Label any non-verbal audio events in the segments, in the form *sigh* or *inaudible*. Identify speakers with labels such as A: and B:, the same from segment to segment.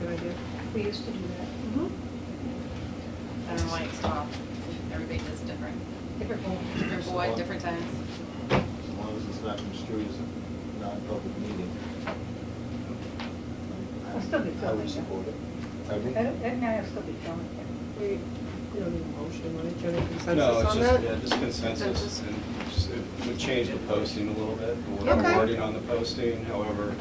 A: Good idea.
B: We used to do that.
C: I don't know why it's off. Everybody does it different.
B: Different one.
C: Different boy, different times.
D: As long as it's not construed as a non-public meeting. I-
B: I'll still be
D: I
B: filming
D: would
B: that.
D: support it. Pardon me?
B: That, that might still be going there.
A: We, we don't need a motion, right? General
E: No,
A: consensus
E: it's
A: on
E: just, yeah,
A: that?
E: just consensus,
C: Consensus.
E: and just, it would change the posting a little bit, the
A: Okay.
E: wording on the posting, however,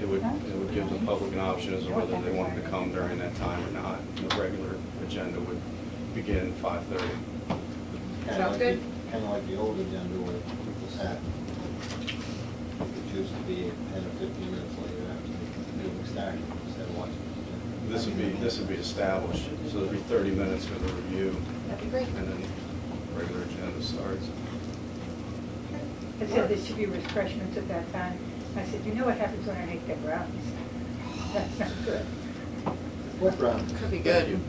E: it would, it would give the public an option as to whether they wanted to come during that time or not. The regular agenda would begin five thirty.
D: Kinda
C: Sounds
D: like
C: good.
D: the- Kinda like the old agenda where it was at. It used to be ten or fifteen minutes later after the meeting started, instead of watching. the agenda.
E: This would be, this would be established, so there'd be thirty minutes for the review,
C: That'd be great.
E: and then regular agenda starts.
B: I said there should be refreshments at that time. I said, you know what happens when I make the brownies? That's not good.
D: What round?
C: Could be good.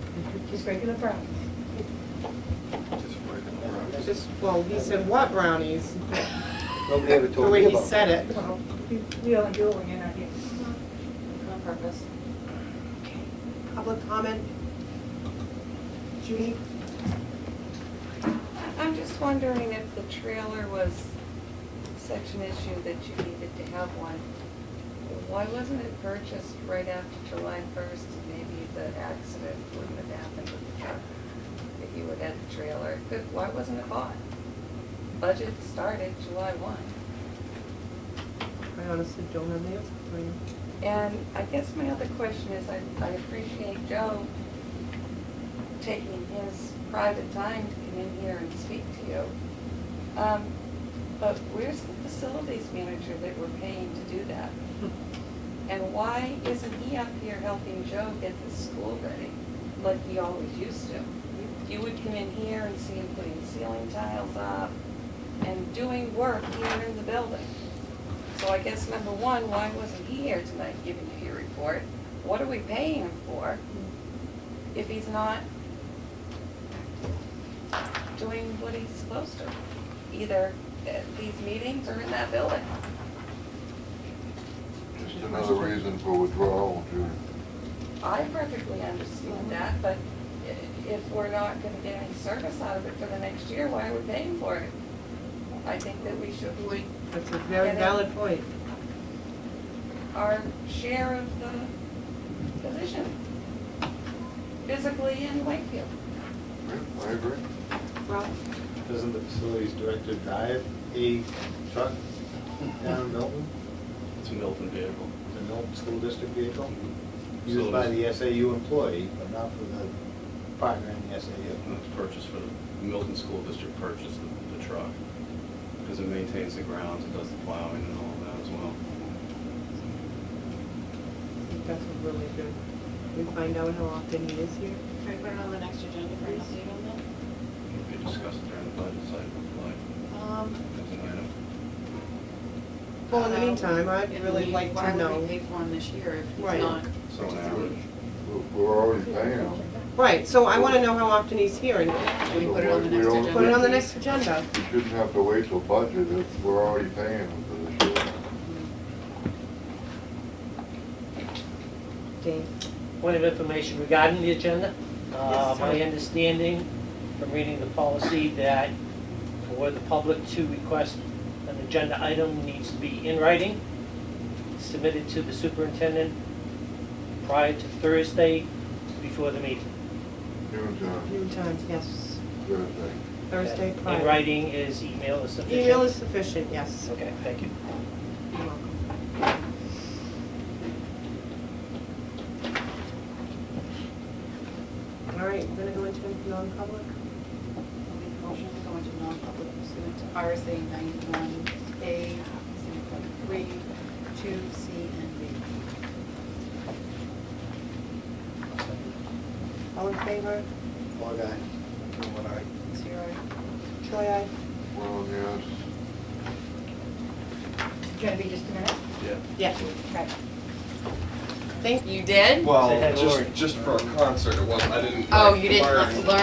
B: Just regular brownies.
A: Just, well, he said what brownies?
D: Nobody ever
A: The
D: told me
A: way
D: about.
A: he said it.
B: Well, we- we only do it when you're not here.
C: On purpose.
A: Public comment? Judy?
F: I'm just wondering if the trailer was such an issue that you needed to have one. Why wasn't it purchased right after July first? Maybe the accident wouldn't have happened with the truck if you would had the trailer. Good, why wasn't it bought? Budget started July one.
A: I honestly don't have the answer for you.
F: And I guess my other question is, I, I appreciate Joe taking his private time to come in here and speak to you. Um, But where's the facilities manager that we're paying to do that? And why isn't he up here helping Joe get the school ready like he always used to? You would come in here and see him putting ceiling tiles up and doing work here in the building. So I guess number one, why wasn't he here tonight giving you your report? What are we paying him for if he's not doing what he's supposed to? Either at these meetings or in that building?
G: Just another reason for withdrawal, Judy.
F: I perfectly understand that, but i- if we're not gonna get any service out of it for the next year, why are we paying for it? I think that we should,
C: Would-
A: That's a very
F: Yeah, that-
A: valid point.
F: our share of the position, physically in Wakefield.
G: Yeah, I agree.
A: Well,
D: Doesn't the facilities director drive a truck down Milton,
E: It's a Milton vehicle.
D: the Milton School District vehicle?
E: So
D: Used by
E: it's-
D: the SAU employee, but not for the partner in the
E: And
D: SAU.
E: It's purchased for, the Milton School District purchased the- the truck, because it maintains the grounds, it does the plowing and all of that as well.
A: that's a really good, we find out how often he is here.
C: Should we put it on the next agenda for an update on that?
E: We discussed it during the budget cycle, like, as an item.
A: Well, in the meantime, I'd
C: Um, If
A: really
C: we-
A: like to
C: Why would we
A: know.
C: pay for him this year if he's
A: Right.
C: not?
E: So an average.
G: We're- We're already paying them.
A: Right, so I want to know how often he's here and
C: Should we put it on the
G: We
C: next
G: don't-
C: agenda?
A: put it on the
C: please?
A: next agenda.
G: We shouldn't have to wait till budget if we're already paying them for this year.
A: Dave,
H: Point of information regarding the agenda.
D: Uh,
H: It's My understanding from reading the policy that for the public to request an agenda item needs to be in writing, submitted to the superintendent prior to Thursday before the meeting.
G: Noon time,
A: noon times, yes.
G: Thursday.
A: Thursday prior.
H: In writing is email is sufficient.
A: Email is sufficient, yes.
H: Okay, thank you.
A: You're welcome. All right, we're gonna go into non-public.
C: Make a motion to go into non-public pursuant to RSA ninety-one A, three, two, C, and B.
A: All in favor?
D: All guy, what I,
C: Zero.
A: Troy, aye.
G: Well, yes,
B: It's gonna be just a minute.
E: Yeah.
A: Yeah. *laughs* Thank
C: You did?
H: Say hi
I: Well,
H: to Lori.
I: just, just for a concert, it wasn't, I didn't.
C: Oh,
I: like,
C: you didn't
I: learn.
C: learn